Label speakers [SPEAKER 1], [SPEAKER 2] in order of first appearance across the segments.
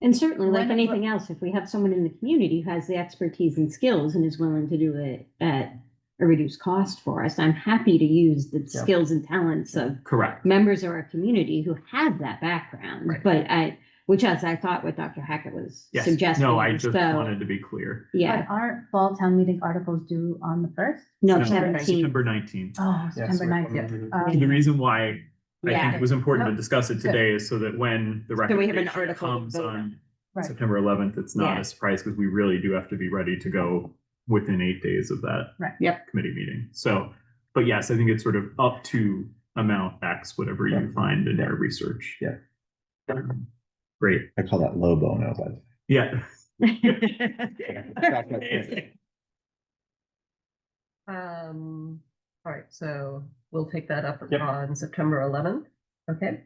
[SPEAKER 1] And certainly, like
[SPEAKER 2] When-
[SPEAKER 1] anything else, if we have someone in the community who has the expertise and skills and is willing to do it at a reduced cost for us, I'm happy to use the
[SPEAKER 3] Yeah.
[SPEAKER 1] skills and talents of
[SPEAKER 3] Correct.
[SPEAKER 1] members of our community who have that background.
[SPEAKER 3] Right.
[SPEAKER 1] But I, which as I thought what Dr. Hackett was
[SPEAKER 3] Yes.
[SPEAKER 1] suggesting.
[SPEAKER 3] No, I just
[SPEAKER 1] so,
[SPEAKER 3] wanted to be clear.
[SPEAKER 1] Yeah,
[SPEAKER 2] But aren't fall town meeting articles due on the first?
[SPEAKER 1] no,
[SPEAKER 3] No,
[SPEAKER 1] seventeen,
[SPEAKER 3] September nineteenth.
[SPEAKER 2] Oh,
[SPEAKER 4] Yeah,
[SPEAKER 2] September
[SPEAKER 4] so we're
[SPEAKER 2] ninth.
[SPEAKER 4] coming
[SPEAKER 2] Um,
[SPEAKER 3] Mm-hmm. The reason why I think
[SPEAKER 1] yeah,
[SPEAKER 3] it was important to
[SPEAKER 2] No.
[SPEAKER 3] discuss it today is so that when
[SPEAKER 1] So
[SPEAKER 3] the
[SPEAKER 1] we have an
[SPEAKER 3] recommendation
[SPEAKER 1] article to
[SPEAKER 3] comes
[SPEAKER 1] vote
[SPEAKER 3] on
[SPEAKER 2] Right.
[SPEAKER 3] September eleventh, it's not
[SPEAKER 1] Yeah.
[SPEAKER 3] a surprise because we really do have to be ready to go within eight days of that.
[SPEAKER 2] Right.
[SPEAKER 1] Yep.
[SPEAKER 3] Committee meeting. So, but yes, I think it's sort of up to amount X, whatever you
[SPEAKER 4] Yeah.
[SPEAKER 3] find in your research.
[SPEAKER 4] Yeah.
[SPEAKER 3] Um, Great.
[SPEAKER 4] I call that low bono, but.
[SPEAKER 3] Yeah.
[SPEAKER 5] Um, all right, so we'll take that up
[SPEAKER 4] Yep.
[SPEAKER 5] on September eleventh, okay?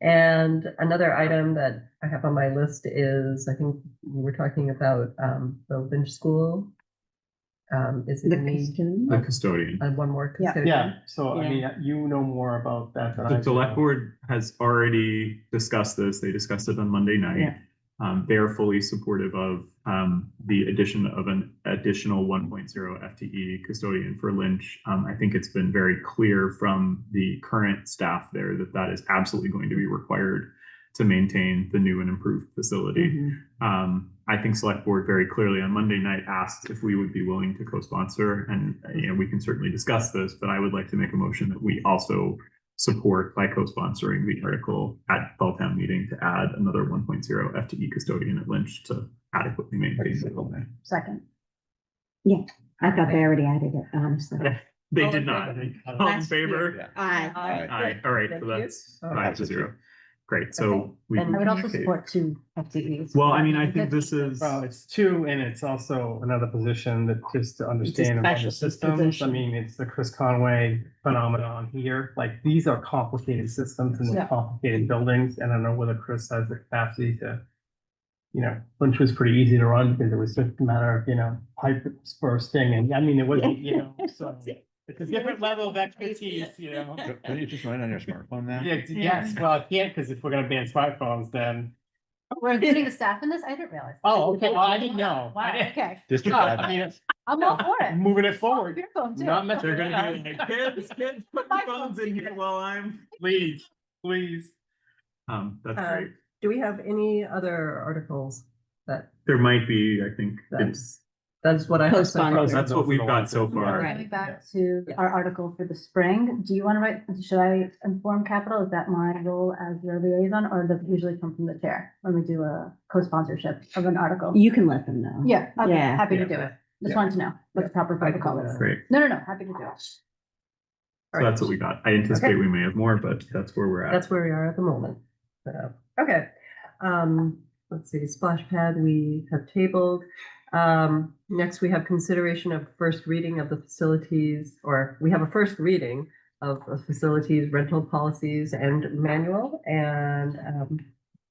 [SPEAKER 5] And another item that I have on my list is, I think we were talking about um the Lynch School. Um, is it
[SPEAKER 1] the
[SPEAKER 5] need
[SPEAKER 1] custodian.
[SPEAKER 3] The custodian.
[SPEAKER 5] uh, one more?
[SPEAKER 2] Yeah.
[SPEAKER 5] custodian?
[SPEAKER 6] Yeah, so I mean, you know more about that than I
[SPEAKER 3] The
[SPEAKER 6] do.
[SPEAKER 3] select board has already discussed this. They discussed it on Monday night.
[SPEAKER 1] Yeah.
[SPEAKER 3] Um, they're fully supportive of, um, the addition of an additional one point zero FTE custodian for Lynch. Um, I think it's been very clear from the current staff there that that is absolutely going to be required to maintain the new and improved facility.
[SPEAKER 6] Mm-hmm.
[SPEAKER 3] Um, I think select board very clearly on Monday night asked if we would be willing to co-sponsor and, uh, you know, we can certainly discuss this, but I would like to make a motion that we also support by co-sponsoring the article at fall town meeting to add another 1.0 FTE E custodian at Lynch to adequately maintain. the building.
[SPEAKER 2] Second.
[SPEAKER 1] I thought they already added it, um, honestly.
[SPEAKER 3] They did not. All in favor?
[SPEAKER 1] I,
[SPEAKER 4] Aye.
[SPEAKER 3] Aye, all right,
[SPEAKER 5] Thank
[SPEAKER 3] so
[SPEAKER 5] you.
[SPEAKER 3] that's
[SPEAKER 5] All
[SPEAKER 3] five
[SPEAKER 4] right.
[SPEAKER 3] to zero. Great, so. we
[SPEAKER 5] And
[SPEAKER 2] I would also
[SPEAKER 3] okay.
[SPEAKER 2] support two FTEs.
[SPEAKER 3] Well, I mean, I think this is.
[SPEAKER 6] Well, it's two, and it's also another position that just to understand about the
[SPEAKER 1] specialist
[SPEAKER 6] systems. I
[SPEAKER 1] position.
[SPEAKER 6] mean, it's the Chris Conway phenomenon here. Like, these are complicated systems and they're
[SPEAKER 2] Yeah.
[SPEAKER 6] complicated buildings, and I don't know whether Chris has the capacity to. You know, Lynch was pretty easy to run because it was just a matter of, you know, pipe bursting, and I mean, it wasn't, you know, so. It's a different level of expertise, you know?
[SPEAKER 4] Can you just run it on your smartphone now?
[SPEAKER 6] Yeah, yes, well, I can't, because if we're gonna ban smartphones, then,
[SPEAKER 2] Oh, We're including the staff in this? I didn't realize.
[SPEAKER 6] oh, okay, well, I didn't know.
[SPEAKER 2] Wow,
[SPEAKER 6] I didn't-
[SPEAKER 2] okay.
[SPEAKER 4] District
[SPEAKER 6] No, I
[SPEAKER 4] admin.
[SPEAKER 6] mean,
[SPEAKER 2] I'm all for
[SPEAKER 6] I'm
[SPEAKER 2] it.
[SPEAKER 6] moving it
[SPEAKER 2] Oh,
[SPEAKER 6] forward,
[SPEAKER 2] Your phone too.
[SPEAKER 6] Not meant to-
[SPEAKER 3] They're gonna be like, kids, kids, put your phones in here while I'm.
[SPEAKER 6] please, please.
[SPEAKER 3] Um, that's
[SPEAKER 5] Uh,
[SPEAKER 3] great.
[SPEAKER 5] Do we have any other articles that,
[SPEAKER 3] There might be, I think, it's
[SPEAKER 5] that's, that's what I. have so far.
[SPEAKER 1] Co-sponsor.
[SPEAKER 3] That's what we've got so far.
[SPEAKER 1] Right.
[SPEAKER 2] Coming back to our article for the spring, do you want to write, should I inform capital? Is that my role as your liaison or does it usually come from the chair when we do a co-sponsorship of an article?
[SPEAKER 1] you can let them know.
[SPEAKER 2] Yeah, okay,
[SPEAKER 1] Yeah.
[SPEAKER 2] happy to
[SPEAKER 3] Yeah.
[SPEAKER 2] do it.
[SPEAKER 4] Yeah.
[SPEAKER 2] Just wanted to know what the proper
[SPEAKER 5] I can do
[SPEAKER 2] protocol is.
[SPEAKER 5] that.
[SPEAKER 3] great.
[SPEAKER 2] No, no, no, happy to do it.
[SPEAKER 5] All
[SPEAKER 3] So
[SPEAKER 5] right.
[SPEAKER 3] that's what we got. I anticipate we may have more, but that's where we're at.
[SPEAKER 5] That's where we are at the moment. So, okay. Um, let's see, splash pad, we have tabled. Um, next we have consideration of first reading of the facilities, or we have a first reading of the facilities rental policies and manual. And, um,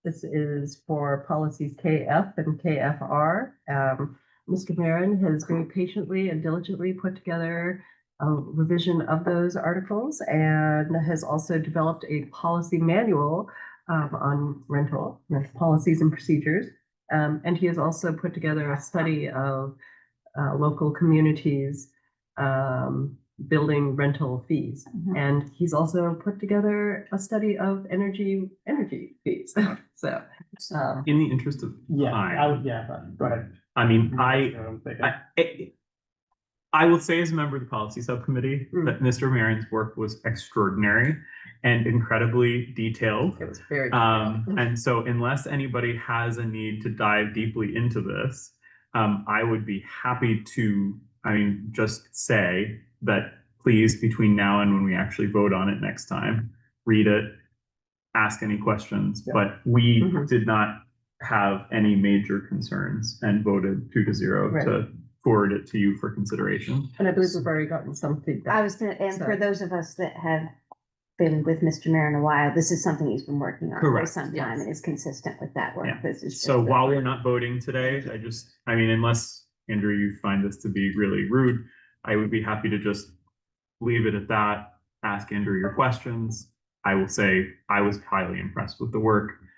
[SPEAKER 5] this is for policies KF and KFR. Um, Mr. Marin has very patiently and diligently put together a revision of those articles and has also developed a policy manual um, on rental rent policies and procedures. Um, and he has also put together a study of uh, local communities um, building rental fees.
[SPEAKER 2] Mhm.
[SPEAKER 5] And he's also put together a study of energy energy fees. so, um,
[SPEAKER 3] In the interest of,
[SPEAKER 6] Yeah, I
[SPEAKER 3] Fine.
[SPEAKER 6] would, yeah, but, go ahead.
[SPEAKER 3] I mean, I,
[SPEAKER 6] That's what I'm thinking.
[SPEAKER 3] I, I- I will say as a member of the policy subcommittee
[SPEAKER 5] Mm.
[SPEAKER 3] that Mr. Marion's work was extraordinary and incredibly detailed.
[SPEAKER 5] it was very.
[SPEAKER 3] Um, and so unless anybody has a need to dive deeply into this, um, I would be happy to, I mean, just say that please, between now and when we actually vote on it next time, read it, ask any questions,
[SPEAKER 6] Yeah.
[SPEAKER 3] but we
[SPEAKER 5] Mhm.
[SPEAKER 3] did not have any major concerns and voted two to zero
[SPEAKER 5] Right.
[SPEAKER 3] to forward it to you for consideration.
[SPEAKER 5] and I believe we've already gotten some feedback.
[SPEAKER 1] I was gonna, and for
[SPEAKER 5] Sorry.
[SPEAKER 1] those of us that have been with Mr. Marin a while, this is something he's been working on for
[SPEAKER 3] Correct.
[SPEAKER 1] some time and is consistent with that work.
[SPEAKER 3] Yeah.
[SPEAKER 1] This is
[SPEAKER 3] So
[SPEAKER 1] just the-
[SPEAKER 3] while we're not voting today, I just, I mean, unless Andrew, you find this to be really rude, I would be happy to just leave it at that, ask Andrew your questions. I will say I was highly impressed with the work.